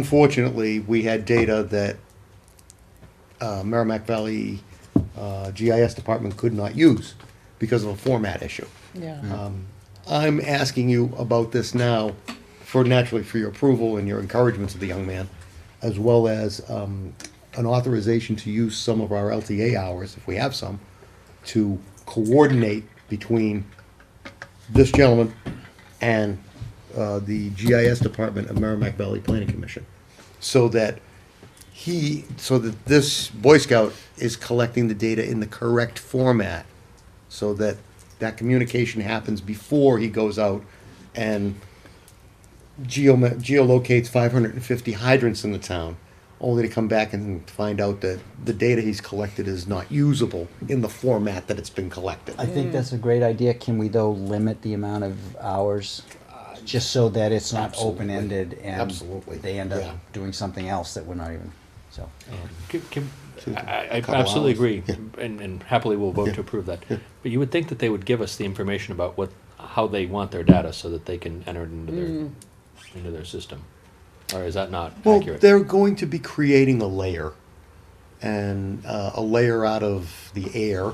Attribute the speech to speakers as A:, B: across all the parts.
A: unfortunately, we had data that uh, Merrimack Valley uh, GIS department could not use because of a format issue.
B: Yeah.
A: I'm asking you about this now for naturally for your approval and your encouragement of the young man, as well as um, an authorization to use some of our LTA hours, if we have some, to coordinate between this gentleman and uh, the GIS Department of Merrimack Valley Planning Commission, so that he, so that this Boy Scout is collecting the data in the correct format, so that that communication happens before he goes out and geoma- geolocates 550 hydrants in the town, only to come back and find out that the data he's collected is not usable in the format that it's been collected.
C: I think that's a great idea. Can we though limit the amount of hours? Just so that it's not
A: Absolutely.
C: open-ended and.
A: Absolutely.
C: They end
A: Yeah.
C: up doing something else that we're not even, so.
D: Can- can- I, I
A: couple
D: absolutely
A: hours.
D: agree, and, and happily will vote to approve that. But you would think that they would give us the information about what, how they want their data so that they can enter it into their, into their system. Or is that not
A: Well,
D: accurate?
A: they're going to be creating a layer, and uh, a layer out of the air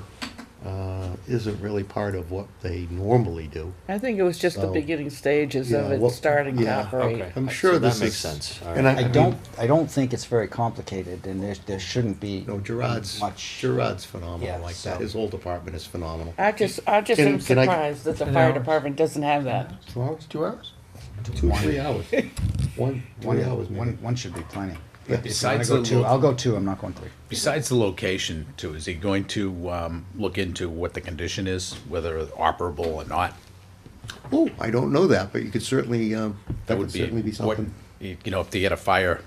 A: uh, isn't really part of what they normally do.
B: I think it was just the
A: So,
B: beginning stages
A: yeah,
B: of it
A: what-
B: starting to
A: yeah,
B: operate.
D: okay.
A: I'm
D: So
A: sure
D: that
A: this
D: makes
A: is-
D: sense. All
A: and
D: right.
C: I
A: mean,
C: don't, I don't think it's very complicated and there, there shouldn't be.
A: No, Gerard's
C: Much.
A: Gerard's phenomenal
C: Yeah,
A: like that.
C: so-
A: His whole department is phenomenal.
B: I just, I just
A: Can-
B: am
A: can I-
B: surprised that the fire department doesn't have that.
A: Two hours? Two hours? Two, three hours. One, one hour is
C: One,
A: maybe.
C: one should be plenty.
A: Yeah.
C: If you wanna
E: Besides
C: go
E: the
C: two,
E: lo-
C: I'll go two, I'm not going three.
E: Besides the location, too, is he going to um, look into what the condition is, whether operable or not?
A: Oh, I don't know that, but you could certainly, um, that would certainly be
E: what-
A: something.
E: You know, if they get a fire,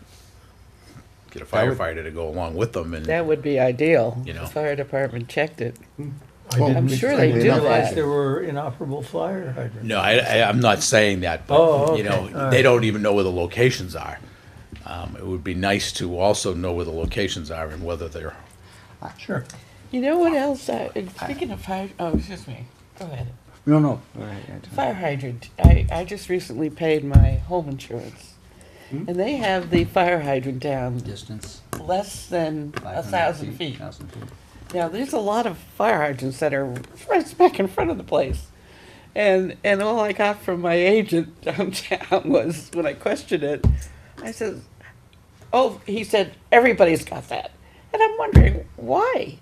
E: get a
A: would-
E: firefighter to go along with them and,
B: That would be ideal.
E: You know.
B: The fire department checked it.
A: Well,
F: didn't
B: I'm
A: we-
B: sure
A: I
B: they
A: did
B: do
A: not-
F: realize
B: that.
F: there were inoperable fire hydrants.
E: no, I, I- I'm not saying that,
F: Oh,
E: but, you
F: okay, all
E: know,
F: right.
E: they don't even know where the locations are. Um, It would be nice to also know where the locations are and whether they're,
F: Sure.
B: You know what else? I, and speaking of fire, oh, excuse me. Go ahead.
C: No, no. all right, I don't-
B: Fire hydrant. I, I just recently paid my home insurance.
A: Hmm?
B: And they have the fire hydrant down
C: Distance.
B: less than a
C: 500
B: thousand feet.
C: 1,000 feet. Oh.
B: Now, there's a lot of fire hydrants that are right smack in front of the place. And, and all I got from my agent downtown was, when I questioned it, I said, oh, he said, everybody's got that. And I'm wondering, why?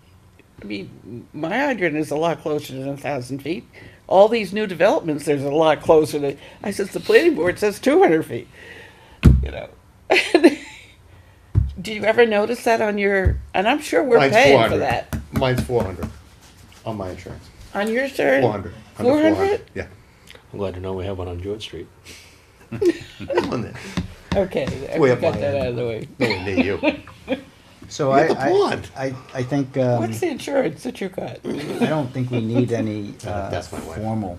B: I mean, my hydrant is a lot closer than a thousand feet. All these new developments, there's a lot closer to, I says, the planning board says two hundred feet, you know? Do you ever notice that on your, and I'm sure we're
A: Mine's
B: paying for
A: 400.
B: that.
A: Mine's four hundred on my insurance.
B: On your shirt?
A: Four hundred.
B: Four hundred?
A: Yeah.
D: I'm glad to know we have one on Jewett Street.
A: Come on then.
B: Okay, I
A: Way up
B: got
A: my
B: that
A: alley.
B: out of the way.
A: No one knew you.
C: So
A: You're
C: I,
A: the blonde.
C: I, I, I think, um.
B: What's the insurance that you got?
C: I don't think we need any uh,
A: That's my wife.
C: formal,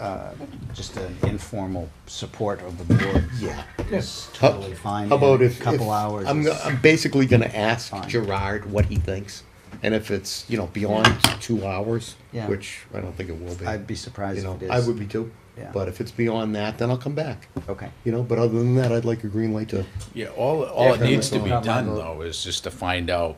C: uh, just an informal support of the board.
A: Yeah.
C: It's
A: How-
C: totally fine.
A: How about
C: and
A: if
C: a Couple
A: if-
C: hours.
A: I'm,
C: is-
A: I'm basically going to ask
C: Fine.
A: Gerard what he thinks, and if it's you know beyond two hours,
C: Yeah.
A: which I don't think it will be.
C: I'd be
A: you
C: surprised
A: know,
C: if it is.
A: I would be too.
C: Yeah.
A: But if it's beyond that, then I'll come back.
C: Okay.
A: You know, but other than that, I'd like a green light to.
E: yeah, all, all it
A: Yeah,
E: needs to
A: that's
E: be
A: not
E: done, though, is just to find out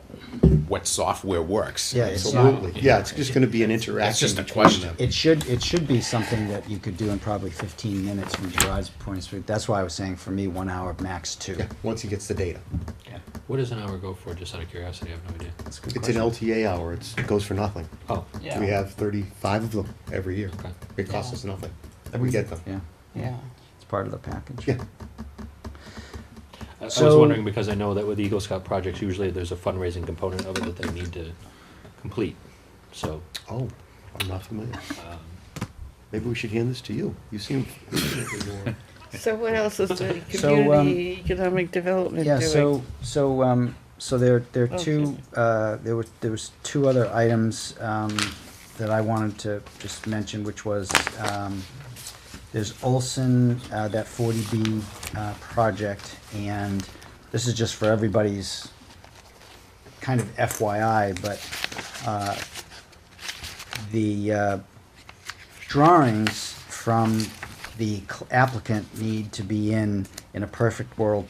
E: what software works.
C: Yeah, it's not,
A: Absolutely. Yeah, it's just going to be an interaction.
E: It's just a
A: between
E: question.
A: them.
C: it should, it should be something that you could do in probably fifteen minutes from Gerard's point of view. That's why I was saying for me, one hour max two.
A: Yeah, once he gets the data,
D: What does an hour go for, just out of curiosity? I have no idea.
C: That's a good
A: it's an
C: question.
A: LTA hour. It's, it goes for nothing.
D: Oh,
B: Yeah.
A: We have 35 of them every year.
D: Okay.
A: It costs us nothing. We get them.
C: Yeah,
B: Yeah.
C: it's part of the package.
A: Yeah.
D: I- I was
C: So-
D: wondering because I know that with Eagle Scout projects, usually there's a fundraising component of it that they need to complete. So,
A: Oh, I'm not familiar. Maybe we should hand this to you. You seem infinitely more.
B: So what else is the
C: So, um,
B: community economic development
C: Yeah, so,
B: doing?
C: so, um, so there, there
B: Oh,
C: are two,
B: excuse
C: uh, there were, there was two other items, um, that I wanted to just mention, which was, um, there's Olson, uh, that forty B, uh, project, and this is just for everybody's kind of FYI, but, uh, the, uh, drawings from the applicant need to be in, in a perfect world,